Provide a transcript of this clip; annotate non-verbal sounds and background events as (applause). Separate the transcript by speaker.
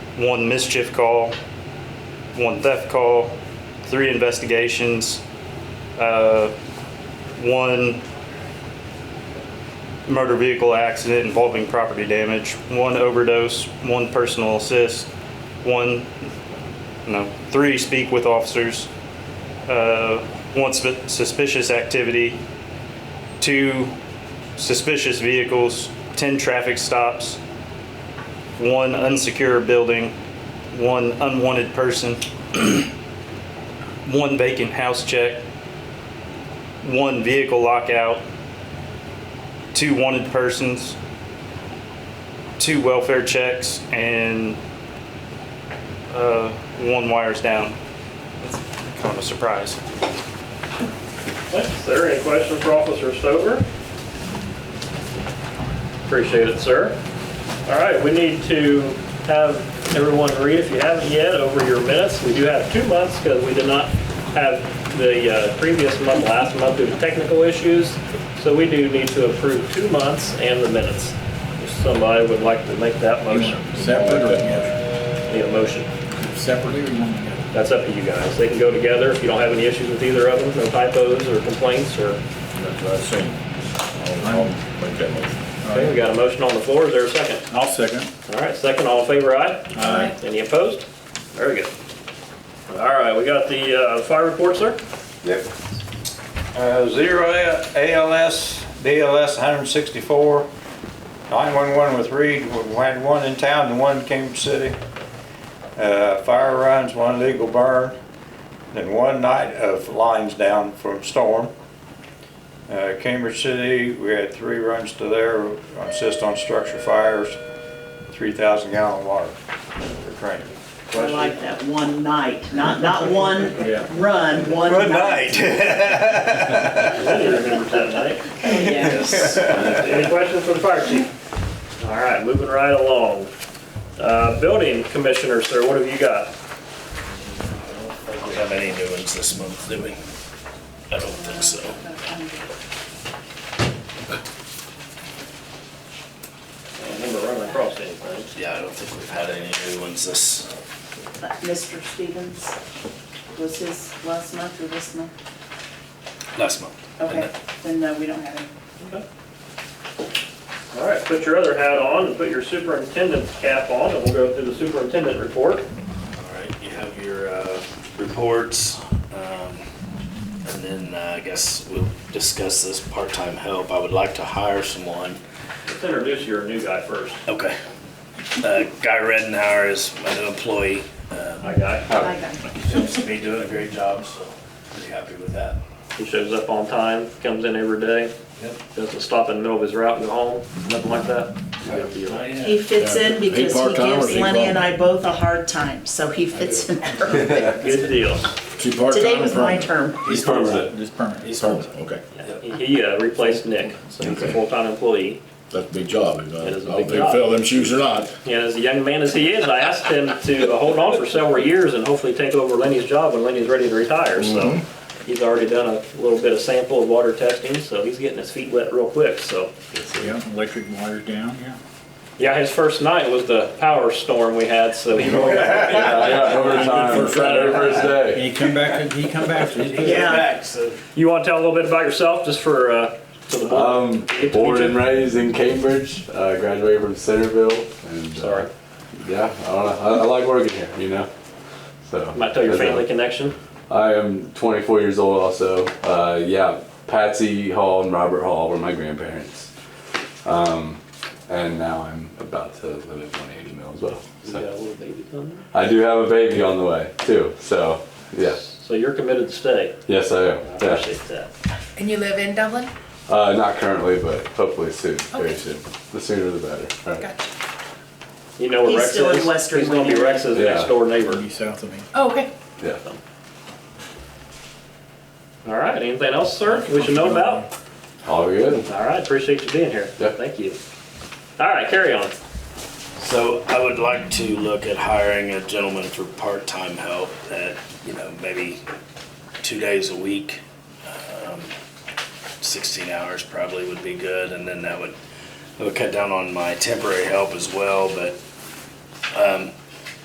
Speaker 1: one mischief call, one theft call, three investigations, uh, one motor vehicle accident involving property damage, one overdose, one personal assist, one, no, three speak with officers, uh, one sp- suspicious activity, two suspicious vehicles, 10 traffic stops, one unsecure building, one unwanted person, one vacant house check, one vehicle lockout, two wanted persons, two welfare checks, and uh, one wires down. That's kind of a surprise.
Speaker 2: Is there any questions for Officer Stover? Appreciate it, sir. All right, we need to have everyone read, if you haven't yet, over your minutes. We do have two months because we did not have the uh, previous month, last month due to technical issues. So we do need to approve two months and the minutes. If somebody would like to make that motion,
Speaker 3: Separate or together?
Speaker 2: need a motion.
Speaker 3: Separately or one together?
Speaker 2: That's up to you guys. They can go together if you don't have any issues with either of them, no typos or complaints or
Speaker 4: That's what I seen. I'll, I'll make that motion.
Speaker 2: Okay, we got a motion on the floor, is there a second?
Speaker 3: I'll second.
Speaker 2: All right, second, all in favor, aye?
Speaker 3: Aye.
Speaker 2: Any opposed? Very good. All right, we got the uh, fire report, sir?
Speaker 5: Yep. Uh, Zero A- ALS, BLS 164, 911 with Reed, we had one in town and one came from city. Uh, Fire runs, one legal burn, then one night of lines down from storm. Uh, Cambridge City, we had three runs to there, on assist on structure fires, 3,000 gallon water for training.
Speaker 6: I like that one night, not, (laughs) not one run, one night.
Speaker 5: Good night.
Speaker 2: I remember that night.
Speaker 6: (laughs) Yes. (laughs)
Speaker 2: Any questions for the fire chief? All right, moving right along. Uh, Building commissioner, sir, what have you got?
Speaker 7: We have any new ones this month, do we? I don't think so.
Speaker 2: I don't remember running across anything.
Speaker 7: Yeah, I don't think we've had any new ones this,
Speaker 6: Mr. Stevens, was his last month or this month?
Speaker 7: last month.
Speaker 6: Okay, then no, we don't have any.
Speaker 2: All right, put your other hat on and put your superintendent's cap on, and we'll go through the superintendent report.
Speaker 7: All right, you have your, uh, reports, um, and then uh, I guess we'll discuss this part-time help. I would like to hire someone.
Speaker 2: Let's introduce your new guy first,
Speaker 7: Okay. Uh, Guy Redenhauer is my new employee. Uh,
Speaker 2: my guy.
Speaker 6: I got it.
Speaker 7: he seems to be doing a great job, so pretty happy with that.
Speaker 2: He shows up on time, comes in every day,
Speaker 7: Yep.
Speaker 2: doesn't stop in the middle of his route and go home, nothing like that.
Speaker 7: Oh, yeah.
Speaker 6: He fits in because he
Speaker 3: part-time or
Speaker 6: gives
Speaker 3: is he
Speaker 6: Lenny and
Speaker 3: full?
Speaker 6: I both a hard time, so he fits
Speaker 3: (laughs)
Speaker 6: in perfect.
Speaker 2: Good deal.
Speaker 3: She part-time
Speaker 6: Today
Speaker 3: or
Speaker 6: was my
Speaker 3: permanent?
Speaker 6: term.
Speaker 3: He's permanent. He's permanent. He's permanent, okay.
Speaker 2: He uh, replaced Nick, so he's a full-time employee.
Speaker 3: That's a big job. I
Speaker 2: That is
Speaker 3: don't
Speaker 2: a
Speaker 3: know if
Speaker 2: big
Speaker 3: they
Speaker 2: job.
Speaker 3: fill them shoes or not.
Speaker 2: And as a young man as he is, I asked him to uh, hold on for several years and hopefully take over Lenny's job when Lenny's ready to retire, so.
Speaker 8: Mm-hmm.
Speaker 2: He's already done a little bit of sample of water testing, so he's getting his feet wet real quick, so.
Speaker 3: Yeah, electric wires down, yeah.
Speaker 2: Yeah, his first night was the power storm we had, so
Speaker 8: (laughs)
Speaker 2: he rolled.
Speaker 3: First rider.
Speaker 4: First day.
Speaker 3: He come back, he come back. He's good.
Speaker 6: Yeah,
Speaker 2: You want to tell a little bit about yourself, just for, uh, to the board?
Speaker 8: Um,
Speaker 2: Get to meet
Speaker 8: born
Speaker 2: you.
Speaker 8: and raised in Cambridge. Uh, graduated from Centerville. And, uh,
Speaker 2: Sorry.
Speaker 8: yeah, I don't know. I, I like working here, you know. So.
Speaker 2: Might tell your
Speaker 8: but, uh,
Speaker 2: family connection.
Speaker 8: I am 24 years old. Also, uh, yeah, Patsy Hall and Robert Hall were my grandparents. Um, and now I'm about to live at 180 Mill as well. So I do have a baby on the way too. So yeah,
Speaker 2: So you're committed to stay.
Speaker 8: yes, I
Speaker 2: I
Speaker 8: am. Yeah.
Speaker 2: appreciate that.
Speaker 9: And you live in Dublin?
Speaker 8: Uh, not currently, but hopefully soon. Very
Speaker 9: Okay.
Speaker 8: soon. The sooner the better. All right.
Speaker 9: Gotcha.
Speaker 2: You know where
Speaker 6: He's
Speaker 2: Rex is?
Speaker 6: still in Western
Speaker 2: He's gonna be
Speaker 6: Wayne.
Speaker 2: Rex's
Speaker 8: Yeah.
Speaker 2: next door neighbor.
Speaker 3: He south of me.
Speaker 9: Oh, okay.
Speaker 8: Yeah.
Speaker 2: All right, anything else, sir, we should know about?
Speaker 8: All good.
Speaker 2: All right, appreciate you being here.
Speaker 8: Yeah.
Speaker 2: Thank you. All right, carry on.
Speaker 7: So I would like to look at hiring a gentleman for part-time help that, you know, maybe two days a week. um, Sixteen hours probably would be good, and then that would, that would cut down on my temporary help as well, but, um,